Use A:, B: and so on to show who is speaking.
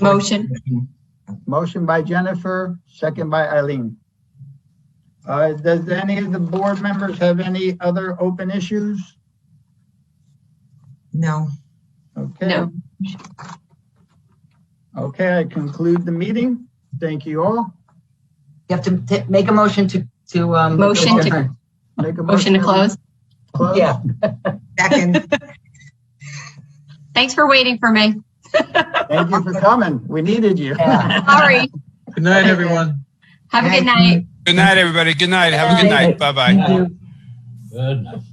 A: Motion.
B: Motion by Jennifer, second by Eileen. Uh, does any of the board members have any other open issues?
C: No.
B: Okay.
A: No.
B: Okay, I conclude the meeting. Thank you all.
C: You have to t- make a motion to, to, um.
A: Motion to-
C: adjourn.
B: Make a
A: Motion to close.
B: Close.
C: Yeah. Second.
A: Thanks for waiting for me.
B: Thank you for coming. We needed you.
C: Yeah.
A: Sorry.
D: Good night, everyone.
A: Have a good night.
E: Good night, everybody. Good night. Have a good night. Bye bye.
F: Good night.